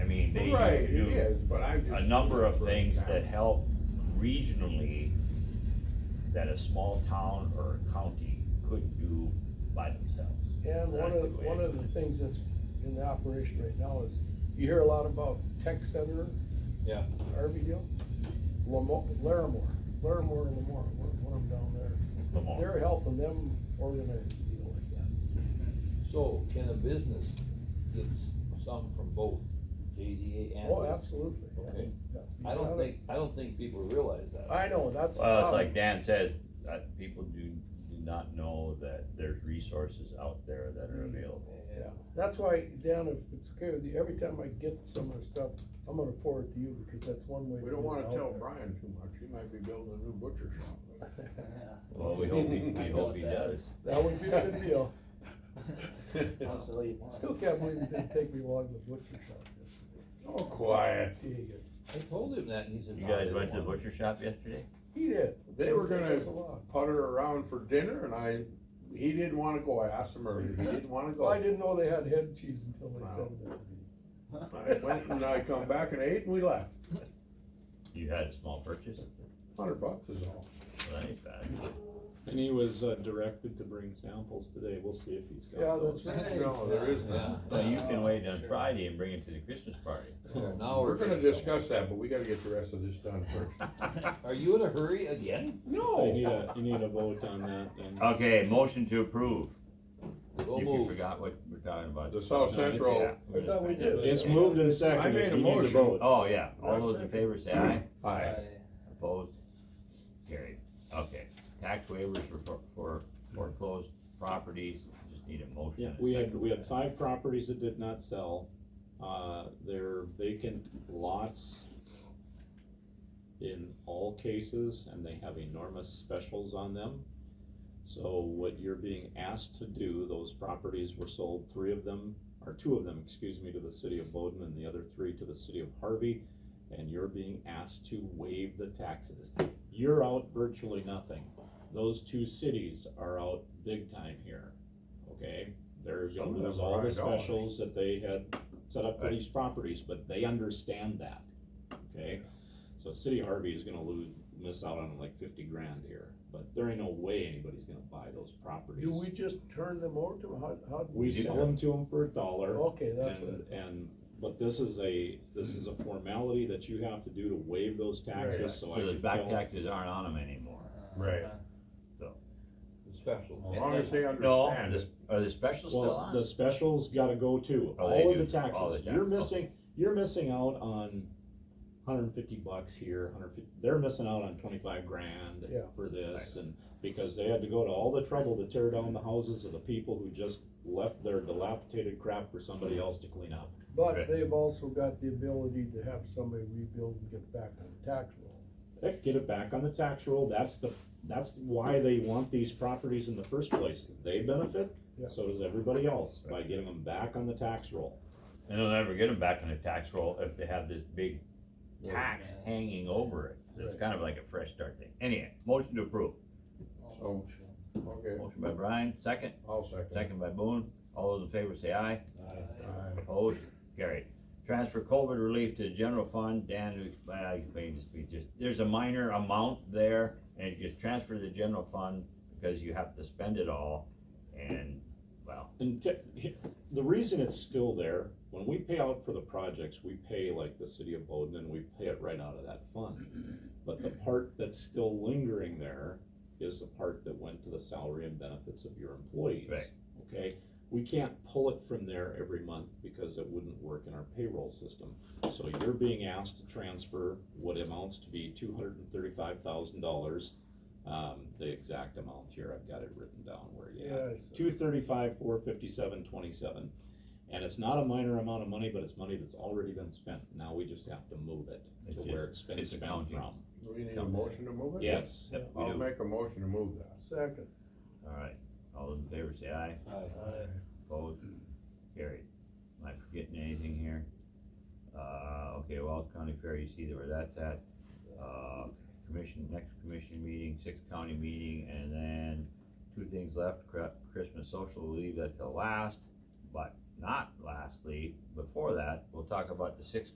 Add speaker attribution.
Speaker 1: think they
Speaker 2: Right, it
Speaker 1: do
Speaker 2: is, but I just.
Speaker 1: a number of
Speaker 2: for
Speaker 1: things that
Speaker 2: example.
Speaker 1: help regionally that a small town or a county could do by themselves.
Speaker 3: And one
Speaker 1: Exactly
Speaker 3: of,
Speaker 1: the way
Speaker 3: one
Speaker 1: it
Speaker 3: of the
Speaker 1: is.
Speaker 3: things that's in the operation right now is, you hear a lot about tech center,
Speaker 4: Yeah,
Speaker 3: Arville, Lamo, Larimore, Larimore and Lamar, one one of them down there.
Speaker 1: Lamar.
Speaker 3: They're helping them organize the deal like that.
Speaker 4: so can a business get s- some from both JDA and?
Speaker 3: Oh,
Speaker 4: this?
Speaker 3: absolutely. yeah,
Speaker 4: Okay,
Speaker 3: yeah.
Speaker 4: I don't think, I don't think people realize that.
Speaker 3: I know, that's. the
Speaker 1: Well, it's
Speaker 3: problem.
Speaker 1: like Dan says, uh, people do, do not know that there's resources out there that are available.
Speaker 3: Yeah, that's why, Dan, if it's okay with you, every time I get some of the stuff, I'm gonna forward it to you, because that's one way. to
Speaker 2: We don't
Speaker 3: get it
Speaker 2: wanna
Speaker 3: out
Speaker 2: tell
Speaker 3: there.
Speaker 2: Brian too much, he might be building a new butcher shop.
Speaker 1: Well, we hope, he- we hope he does.
Speaker 3: That would be a good deal.
Speaker 5: I'll sell you one.
Speaker 3: Still can't believe it didn't take me long to butcher shop this.
Speaker 2: Oh, quiet.
Speaker 3: Gee,
Speaker 4: I told him that and he said.
Speaker 1: You
Speaker 4: "No,
Speaker 1: guys
Speaker 4: they
Speaker 1: went to the
Speaker 4: won't."
Speaker 1: butcher shop yesterday?
Speaker 3: He did.
Speaker 2: They were
Speaker 3: Take
Speaker 2: gonna
Speaker 3: us along.
Speaker 2: putter around for dinner and I, he didn't wanna go, I asked him earlier, he didn't wanna go.
Speaker 3: Well, I didn't know they had head cheese until they
Speaker 2: Wow.
Speaker 3: said that. to me.
Speaker 2: I went and I come back and ate and we left,
Speaker 1: You had a small purchase,
Speaker 2: hundred bucks is all.
Speaker 1: Well, that ain't bad.
Speaker 6: And he was uh, directed to bring samples today, we'll see if he's
Speaker 3: Yeah,
Speaker 6: got
Speaker 3: that's
Speaker 6: those.
Speaker 3: right.
Speaker 2: No, there is
Speaker 4: Yeah.
Speaker 2: none.
Speaker 1: Well, you
Speaker 3: Uh,
Speaker 1: can wait on Friday and bring it to the Christmas party.
Speaker 4: Yeah, Now
Speaker 2: We're
Speaker 4: we're.
Speaker 2: gonna discuss that, but we gotta get the rest of this done first.
Speaker 4: Are you in a hurry again?
Speaker 6: You need
Speaker 2: No,
Speaker 6: a, you uh, need a vote on that then.
Speaker 1: Okay, motion to approve,
Speaker 4: Go
Speaker 1: if you
Speaker 4: move.
Speaker 1: forgot what we're talking about.
Speaker 2: the South Central,
Speaker 3: I thought we did.
Speaker 6: It's moved and seconded.
Speaker 2: I made a
Speaker 6: You need to
Speaker 2: motion.
Speaker 6: vote.
Speaker 1: Oh, yeah, all those in favor say aye,
Speaker 2: aye,
Speaker 1: opposed, carried, okay. Tax waivers for, for- for foreclosed properties, just need a motion.
Speaker 6: Yeah,
Speaker 1: and a
Speaker 6: we had,
Speaker 1: second.
Speaker 6: we had five properties that did not sell, uh, they're vacant lots in all cases, and they have enormous specials on them. So what you're being asked to do, those properties were sold, three of them, or two of them, excuse me, to the city of Bowden, and the other three to the city of Harvey, and you're being asked to waive the taxes. You're out virtually nothing, those two cities are out big time here, okay? They're
Speaker 2: Some
Speaker 6: gonna
Speaker 2: of them
Speaker 6: lose all
Speaker 2: are
Speaker 6: the
Speaker 2: high dollars.
Speaker 6: specials that they had set up for these properties, but they understand that, okay? So City of Harvey is gonna lose, miss out on like fifty grand here, but there ain't no way anybody's gonna buy those properties.
Speaker 3: Do we just turn them over to them? How, how?
Speaker 6: We
Speaker 1: You
Speaker 6: sell
Speaker 1: can.
Speaker 6: them to them for a dollar.
Speaker 3: Okay, that's
Speaker 6: And,
Speaker 3: it.
Speaker 6: and, but this is a, this is a formality that you have to do to waive those taxes, so
Speaker 1: So
Speaker 6: I
Speaker 1: the
Speaker 6: can
Speaker 1: back
Speaker 6: tell.
Speaker 1: taxes aren't on them anymore.
Speaker 2: Right.
Speaker 4: The Special.
Speaker 2: as long as they
Speaker 1: No,
Speaker 2: understand
Speaker 1: this-
Speaker 2: it.
Speaker 1: are the specials still
Speaker 6: Well, the
Speaker 1: on?
Speaker 6: specials gotta go too,
Speaker 1: Oh, they
Speaker 6: all of
Speaker 1: do.
Speaker 6: the
Speaker 1: All the tax-
Speaker 6: taxes, you're
Speaker 1: okay.
Speaker 6: missing, you're missing out on hundred and fifty bucks here, hundred fifty, they're missing out on twenty-five grand
Speaker 3: Yeah.
Speaker 6: for this, and because they had to go to all the trouble to tear down the houses of the people who just left their dilapidated crap for somebody else to clean up.
Speaker 3: But they've also got the ability to have somebody rebuild and get back on the tax roll.
Speaker 6: Heck, get it back on the tax roll, that's the, that's why they want these properties in the first place, they benefit,
Speaker 3: Yeah.
Speaker 6: so does everybody else, by getting them back on the tax roll.
Speaker 1: And they'll never get them back on the tax roll if they have this big tax
Speaker 5: Yes.
Speaker 1: hanging over it. So It's
Speaker 3: Right.
Speaker 1: kind of like a fresh start thing. Anyway, motion to approve.
Speaker 3: Oh,
Speaker 2: So- okay,
Speaker 1: Motion by Brian, second,
Speaker 2: I'll second.
Speaker 1: second by Boone. All those in favor say aye.
Speaker 2: Aye.
Speaker 1: Opposed? Carried. Transfer COVID relief to the general fund. Dan, you explain- I explained this, we just, there's a minor amount there and it gets transferred to the general fund because you have to spend it all and, well,
Speaker 6: And te- the reason it's still there, when we pay out for the projects, we pay like the city of Bowden and we pay it right out of that fund. But the part that's still lingering there is the part that went to the salary and benefits of your employees.
Speaker 1: Right.
Speaker 6: Okay, we can't pull it from there every month because it wouldn't work in our payroll system. So you're being asked to transfer what amounts to be two hundred and thirty-five thousand dollars. Um, the exact amount here, I've got it written down where you have it
Speaker 3: Yes.
Speaker 6: two thirty-five, four fifty-seven, twenty-seven. And it's not a minor amount of money, but it's money that's already been spent, now we just have to move it
Speaker 1: It's
Speaker 6: to
Speaker 1: just-
Speaker 6: where it's been
Speaker 1: it's
Speaker 6: spent
Speaker 1: accounting.
Speaker 6: from.
Speaker 2: Do we need a motion to move it?
Speaker 6: Yes,
Speaker 1: yep, we
Speaker 2: I'll
Speaker 1: do.
Speaker 2: make a motion to move that.
Speaker 3: Second,
Speaker 1: All right. All those in favor say aye. Opposed? Carried. Am I forgetting anything here? Uh, okay, Wells County Fair, you see where that's at. Uh, commission, next commission meeting, sixth county meeting, and then two things left, Cra- Christmas social leave, that's the last. But not lastly, before that, we'll talk about the sixth